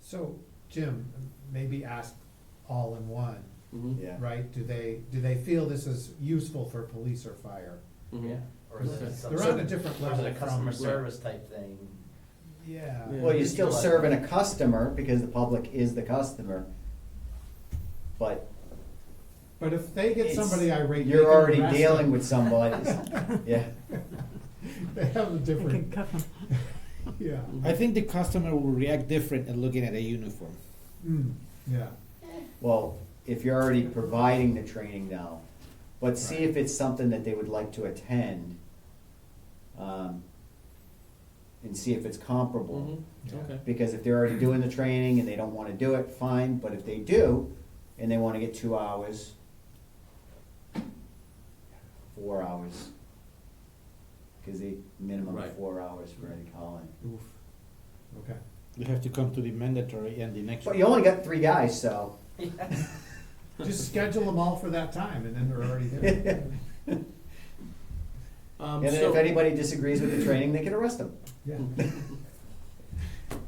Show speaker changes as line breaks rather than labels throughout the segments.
So, Jim, maybe ask all in one,
Mhm.
Yeah.
right? Do they, do they feel this is useful for police or fire?
Mhm.
Yeah, or is it
Okay.
some?
They're on a different
Or is
level
it a customer
from-
service type thing?
Yeah.
Yeah.
Well, you're still serving a customer because the public is the customer. But
But if they get
It's-
somebody irate, they
you're
can
already
arrest
dealing
them.
with somebody. Yeah.
They have a different, yeah,
I think the customer will react different at looking at a uniform.
mm, yeah,
Well, if you're already providing the training now, but see if it's something that they would like to attend. um, And see if it's comparable.
Mhm. Okay.
Because if they're already doing the training and they don't wanna do it, fine, but if they do, and they wanna get two hours, four hours, cause they, minimum
Right.
four hours for any calling.
oof, okay.
You have to come to the mandatory and the next
But
one.
you only got three guys, so.
Just schedule them all for that time and then they're already there.
Um,
And then
so-
if anybody disagrees with the training, they can arrest them.
Yeah.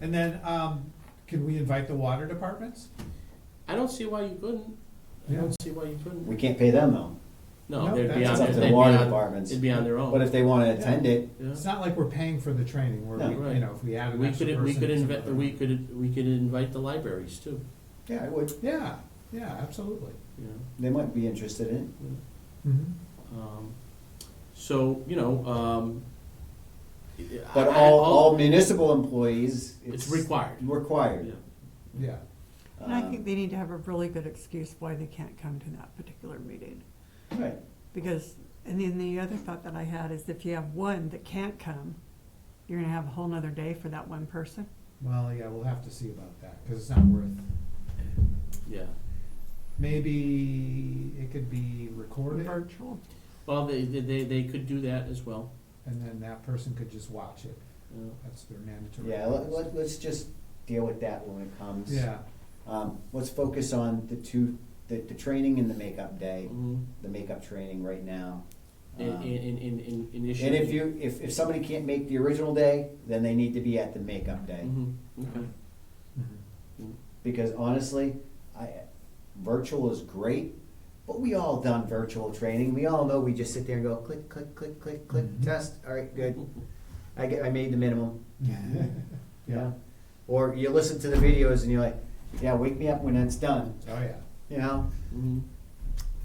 And then, um, can we invite the water departments?
I don't see why you couldn't. I
Yeah.
don't see why you couldn't.
We can't pay them though.
No,
No,
they'd be
that's
on,
It's up
their-
to
they'd
the
be
water
on,
departments.
it'd be on their own.
But if they wanna attend it,
Yeah.
It's not like we're paying for the training where
No.
we, you
Right.
know, if we add an
We
extra
could,
person.
we could
it's
invite,
another-
we could, we could invite the libraries too,
yeah, I would.
Yeah, yeah, absolutely.
you know.
They might be interested in it.
Mm-hmm.
Um, So, you know, um. I-
But
I-
all, all municipal employees,
It's
it's.
required. Yeah.
Required.
Yeah,
And I think
Um,
they need to have a really good excuse why they can't come to that particular meeting.
Um, Right,
Because, and then the other thought that I had is if you have one that can't come, you're gonna have a whole nother day for that one person.
well, yeah, we'll have to see about that, cause it's not worth,
Yeah.
maybe it could be recorded
Virtual.
Well, they, they- they, they could do that as well.
and then that person could just watch it.
you know.
That's their mandatory.
yeah, let, let, let's just deal with that when it comes.
Yeah,
Um, let's focus on the two, the, the training and the makeup day,
Mhm.
the makeup training right now.
And,
Um,
and, and, and
And
initially.
if you, if, if somebody can't make the original day, then they need to be at the makeup day.
Mhm. Okay.
Mm-hmm.
Mhm.
Because honestly, I, virtual is great, but we all done virtual training. We all know we just sit there and go click, click, click, click, click,
Mhm.
test. All right,
Mm-hmm.
good. I get, I made the minimum. you
yeah,
know? Or you listen to the videos and you're like, yeah, wake me up when that's done.
oh, yeah.
You know.
Mhm.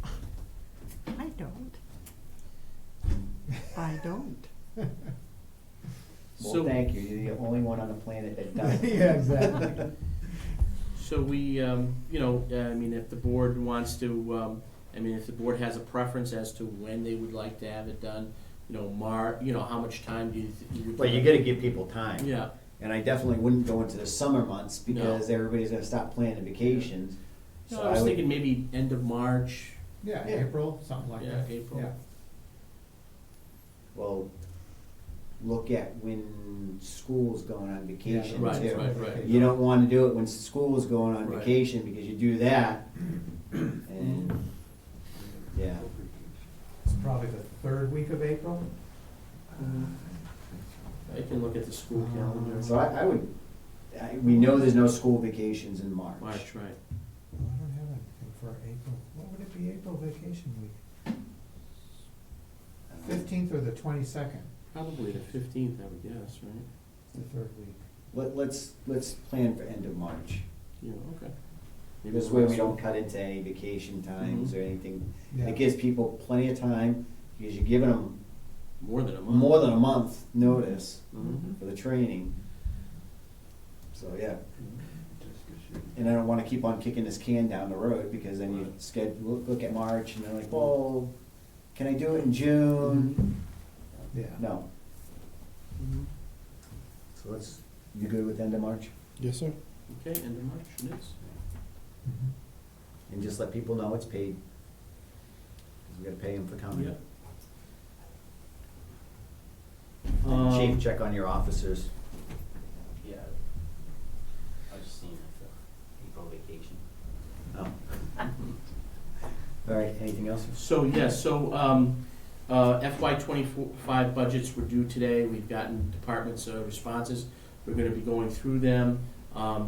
I don't. I don't.
Well,
So-
thank you. You're the only one on the planet that does. it.
Yeah, exactly.
So we, um, you know, I mean, if the board wants to, um, I mean, if the board has a preference as to when they would like to have it done, you know, Mar, you know, how much time do you? th-
But you got to give people time.
Yeah,
And I definitely wouldn't go into the summer months because everybody's going to stop planning vacations.
so I was
would-
thinking maybe end of March,
Yeah,
Yeah.
April, something like
yeah,
that.
April.
Yeah.
Well, look at when school's going on
Yeah,
vacation
Right,
too.
right, right.
You don't want to do it when school is going on
Right.
vacation because you do that, and yeah,
It's probably the third week of April.
I can look at the school calendar.
so I, I would. I, we know there's no school vacations in March.
March, right?
Oh, I don't have anything for April. What would it be, April vacation week?
Uh,
Fifteenth or the twenty-second,
Probably the fifteenth, I would guess, right?
the third week.
Let, let's let's plan for end of March.
Yeah, okay. Maybe
This
the
way we
last
don't
one.
cut into any vacation times
Mm-hmm.
or anything.
Yeah.
It gives people plenty of time because you're giving them
More than a month.
more than a month notice
Mhm.
for the training. So yeah. And I don't wanna keep on kicking this can down the road, because then you
Right.
schedule, look at March, and they're like, well, can I do it in
Mm-hmm.
June?
Yeah.
No,
Mhm.
so let's, you good with end of March?
Yes, sir.
Okay, end of March, it is.
Mhm.
And just let people know it's paid. Cause we gotta pay them for
Oh, Yeah.
coming.
Um,
Chief, check on your officers.
Yeah. I was just seeing if the April vacation.
Oh. All right, anything else?
So, yes, so um, uh, FY twenty-five budgets were due today. We've gotten departments' uh, responses. We're gonna be going through them. Um,